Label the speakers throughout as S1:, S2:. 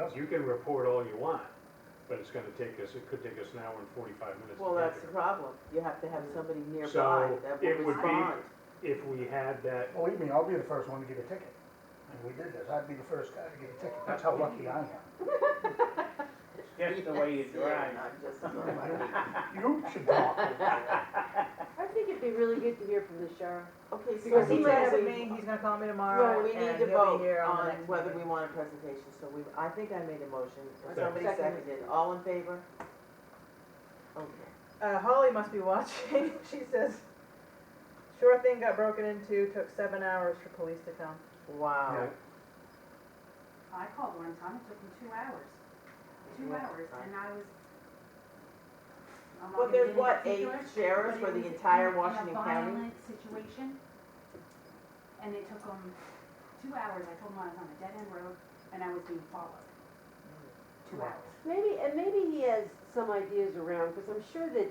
S1: us, you can report all you want, but it's gonna take us, it could take us an hour and forty-five minutes
S2: Well,
S1: to
S2: that's
S1: get
S2: the problem. You have to have somebody nearby
S1: So,
S2: that
S1: it
S2: will
S1: would be-
S2: respond.
S1: there. If we had that,
S3: Believe me, Oh, I'll be the first one to get a ticket. And we did this, I'd be the first guy to get a ticket, that's how lucky I am.
S4: Just the way you drive.
S3: You should talk.
S5: I think it'd be really good to hear from the sheriff.
S2: Okay, so
S4: Because he
S2: we
S4: might have a
S2: need-
S4: meeting, he's gonna call me
S2: No,
S4: tomorrow
S2: we
S4: and
S2: need to
S4: he'll
S2: vote
S4: be here on the
S2: on
S4: next
S2: whether we
S4: meeting.
S2: want a presentation, so we, I think I made a motion, if
S1: Second.
S2: somebody
S4: Second.
S2: seconded, all in favor? Okay.
S4: Uh, Holly must be watching, she says, sure thing got broken into, took seven hours for police to come.
S2: Wow.
S1: Yeah.
S6: I called one time, it took me two hours, two
S2: Yeah,
S6: hours,
S2: right.
S6: and I was. I'm not
S2: Well,
S6: gonna
S2: there's
S6: get
S2: what,
S6: into
S2: eight
S6: particulars,
S2: sheriffs
S6: but
S2: for the
S6: it was
S2: entire
S6: in a-
S2: Washington County?
S6: In a violent situation, and it took them two hours, I told them I was on a dead end road, and I was being followed. Two hours.
S5: Maybe, and maybe he has some ideas around, because I'm sure that,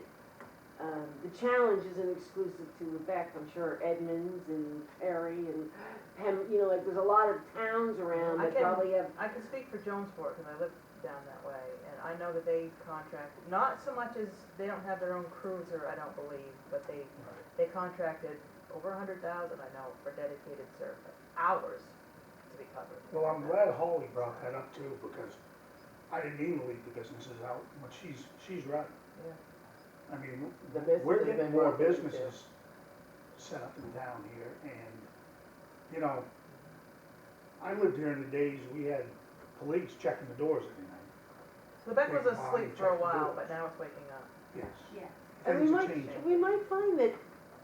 S5: um, the challenge isn't exclusive to Lubec. I'm sure Edmonds and Perry and Pem, you know, like, there's a lot of towns around
S4: I
S5: that
S4: can-
S5: Um, probably have,
S4: I can speak for Jonesport, cause I live down that way, and I know that they contract, not so much as, they don't have their own cruiser, I don't believe, but they, they contracted over a hundred thousand, I know, for dedicated service, hours to be covered.
S3: Well, I'm glad Holly brought that up too, because I didn't even leave the businesses out, but she's, she's right. I
S4: Yeah.
S3: mean,
S2: The business
S3: we're
S2: has
S3: getting
S2: been
S3: more
S2: working, too.
S3: businesses set up in town here, and, you know, I lived here in the days we had police checking the doors every night,
S4: Lubec was
S3: Wait, why
S4: asleep
S3: check
S4: for a
S3: the
S4: while,
S3: doors?
S4: but now it's waking up.
S3: yes.
S6: Yeah,
S5: and we
S3: Things are
S5: might,
S3: changing.
S5: we might find that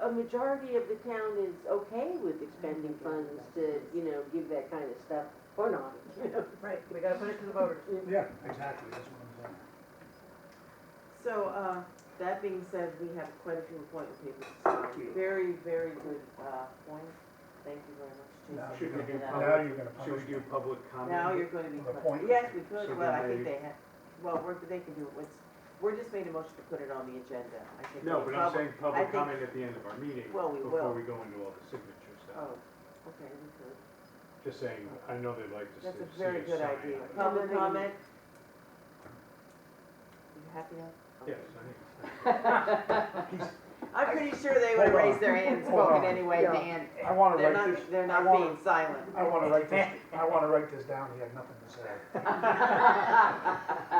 S5: a majority of the town is okay with expending funds to, you know, give that kind of stuff, or not, you know.
S4: Right, we gotta put it to the voters.
S3: Yeah, exactly, that's what I'm saying.
S2: So, uh, that being said, we have quite a few appointment papers to sign. Very, very good, uh, point. Thank you very much,
S3: Now
S2: Jason.
S3: you're
S2: for
S1: gonna
S2: that.
S1: do
S3: Now you're gonna
S1: should we do
S3: punish me.
S1: public comment?
S2: Now you're gonna be,
S3: The appointment.
S2: yes, we
S1: So
S2: could, but I
S1: then
S2: think
S1: they-
S2: they have, well, we're, they can do it, with- we're just made a motion to put it on the agenda, I think.
S1: No,
S2: the
S1: but I'm
S2: public-
S1: saying
S2: I
S1: public
S2: think-
S1: comment at the end of our meeting,
S2: Well, we will.
S1: before we go into all the signature stuff.
S2: Oh, okay, we could.
S1: Just saying, I know they'd like to see
S2: That's a
S1: see
S2: very
S1: us
S2: good
S1: sign
S2: idea.
S1: it.
S2: Public
S5: Yeah.
S2: comment? You happy now?
S1: Yes,
S2: Okay.
S1: I think it's.
S2: I'm pretty sure they would have raised their hand
S3: Hold on.
S2: spoken anyway,
S3: Yeah.
S2: Dan.
S3: I wanna
S2: They're
S3: write this,
S2: not, they're
S3: I
S2: not
S3: wanna,
S2: being silent.
S3: I wanna write this, I wanna write this down, he had nothing to say.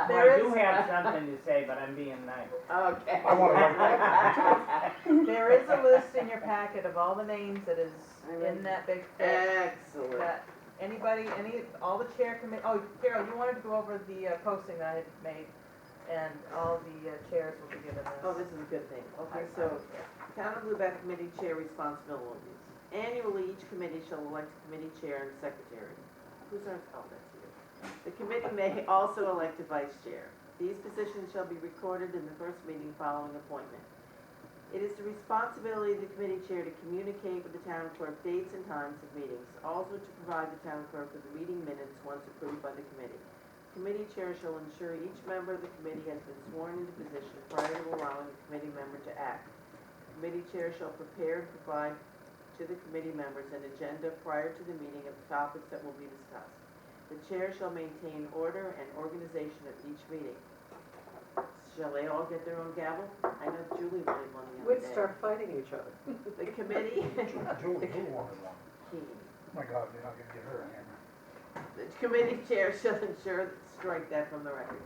S4: There
S7: I do
S4: is-
S7: have something to say, but I'm being nice.
S2: Okay.
S3: I wanna write that down.
S4: There is a list in your packet of all the names that is
S5: I read
S4: in that big fit
S2: Excellent.
S4: that anybody, any, all the chair commit, oh, Carol, you wanted to go over the uh, posting that I had made, and all the uh, chairs will be given this.
S2: Oh, this is a good thing. Okay, so Town of Lubec Committee Chair responsibilities. Annually, each committee shall elect a committee chair and secretary. Who's our, oh, that's you. The committee may also elect a vice chair. These positions shall be recorded in the first meeting following appointment. It is the responsibility of the committee chair to communicate with the town clerk dates and times of meetings, also to provide the town clerk with the meeting minutes once approved by the committee. Committee chair shall ensure each member of the committee has been sworn into position prior to allowing a committee member to act. Committee chair shall prepare and provide to the committee members an agenda prior to the meeting of the topics that will be discussed. The chair shall maintain order and organization of each meeting. Shall they all get their own gavel? I know Julie wanted one the other
S8: We'd
S2: day.
S8: start fighting each other.
S2: The committee,
S3: Julie, who wanted one?
S2: the
S3: Oh My God, they're not gonna get her a hammer.
S2: committee chair shall ensure, strike that from the record.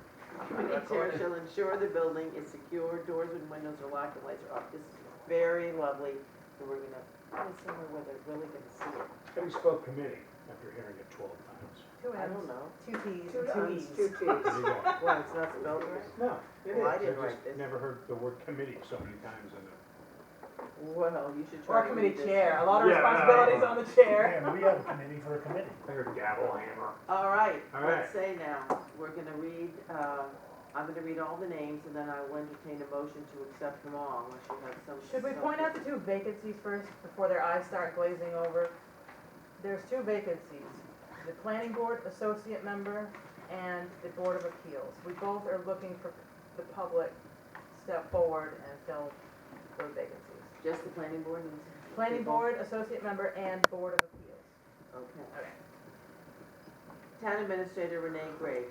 S2: Committee chair shall ensure the building is secure, doors and windows are locked and lights are off. This is very lovely, and we're gonna, put it somewhere where they're really gonna see it.
S1: How do you spell committee after hearing it twelve times?
S4: Two
S2: I don't
S4: M's,
S2: know.
S4: two T's,
S8: Two
S4: and
S8: tons,
S4: two
S8: two
S4: E's.
S8: teams.
S1: There you go.
S2: Well, it's not spelled right.
S1: No, it is.
S2: Well, I didn't
S1: I
S2: write
S1: just
S2: this.
S1: never heard the word committee so many times in a.
S2: Well, you should
S4: Or
S2: try to read
S4: committee
S2: this.
S4: chair, a lot of
S1: Yeah, I-
S4: responsibilities on the chair.
S3: And we have a committee for a committee.
S1: I heard gavel hammer.
S2: All right,
S1: All
S2: let's say now, we're gonna read, uh, I'm gonna read all the names and then I will entertain a motion to accept them all unless you have some.
S4: Should we point out the two vacancies first, before their eyes start glazing over? There's two vacancies, the planning board associate member and the board of appeals. We both are looking for the public to step forward and fill those vacancies.
S2: Just the planning board and.
S4: Planning
S2: people?
S4: board, associate member, and board of appeals.
S2: Okay.
S4: Okay.
S2: Town Administrator Renee Gray,